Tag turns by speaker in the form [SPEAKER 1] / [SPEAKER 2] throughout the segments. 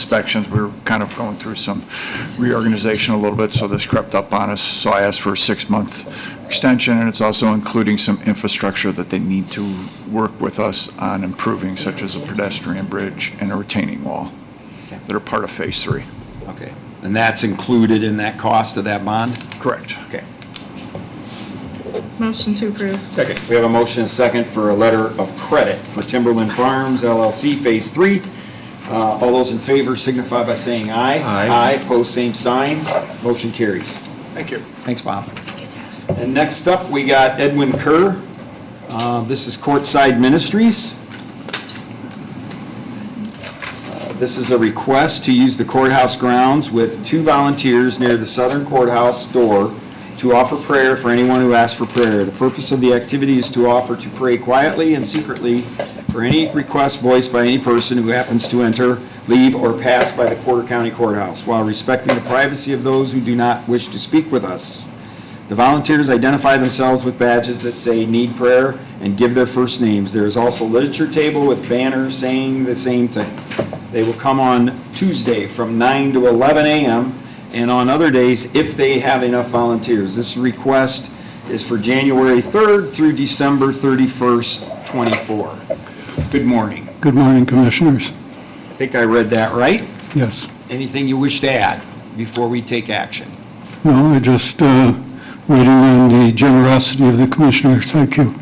[SPEAKER 1] inspections. We were kind of going through some reorganization a little bit, so this crept up on us. So I asked for a six-month extension, and it's also including some infrastructure that they need to work with us on improving, such as a pedestrian bridge and a retaining wall that are part of Phase Three.
[SPEAKER 2] Okay. And that's included in that cost of that bond?
[SPEAKER 1] Correct.
[SPEAKER 2] Okay.
[SPEAKER 3] Motion to approve.
[SPEAKER 2] Second. We have a motion and second for a letter of credit for Timberland Farms LLC Phase Three. Uh, All those in favor signify by saying aye.
[SPEAKER 4] Aye.
[SPEAKER 2] Aye, pose same sign. Motion carries.
[SPEAKER 1] Thank you.
[SPEAKER 2] Thanks, Bob. And next up, we got Edwin Kerr. Uh, This is Courtside Ministries. Uh, This is a request to use the courthouse grounds with two volunteers near the southern courthouse door to offer prayer for anyone who asks for prayer. The purpose of the activity is to offer to pray quietly and secretly for any request voiced by any person who happens to enter, leave, or pass by the Porter County Courthouse, while respecting the privacy of those who do not wish to speak with us. The volunteers identify themselves with badges that say "Need Prayer" and give their first names. There is also literature table with banners saying the same thing. They will come on Tuesday from 9 to 11 a.m. and on other days if they have enough volunteers. This request is for January 3rd through December 31st, 24. Good morning.
[SPEAKER 5] Good morning, Commissioners.
[SPEAKER 2] I think I read that right.
[SPEAKER 5] Yes.
[SPEAKER 2] Anything you wish to add before we take action?
[SPEAKER 5] No, I just uh, waiting on the generosity of the Commissioners. Thank you.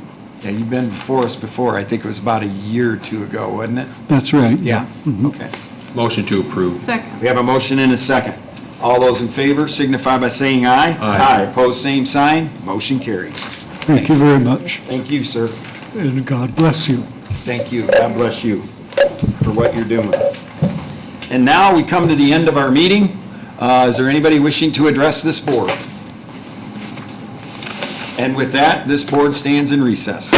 [SPEAKER 2] Yeah, you've been before us before. I think it was about a year or two ago, wasn't it?
[SPEAKER 5] That's right.
[SPEAKER 2] Yeah,
[SPEAKER 5] Mhm.
[SPEAKER 2] okay.
[SPEAKER 4] Motion to approve.
[SPEAKER 3] Second.
[SPEAKER 2] We have a motion and a second. All those in favor signify by saying aye.
[SPEAKER 4] Aye.
[SPEAKER 2] Opposed, same sign. Motion carries.
[SPEAKER 5] Thank you very much,
[SPEAKER 2] Thank you, sir.
[SPEAKER 5] and God bless you.
[SPEAKER 2] Thank you. God bless you for what you're doing. And now we come to the end of our meeting. Uh, Is there anybody wishing to address this board? And with that, this board stands in recess.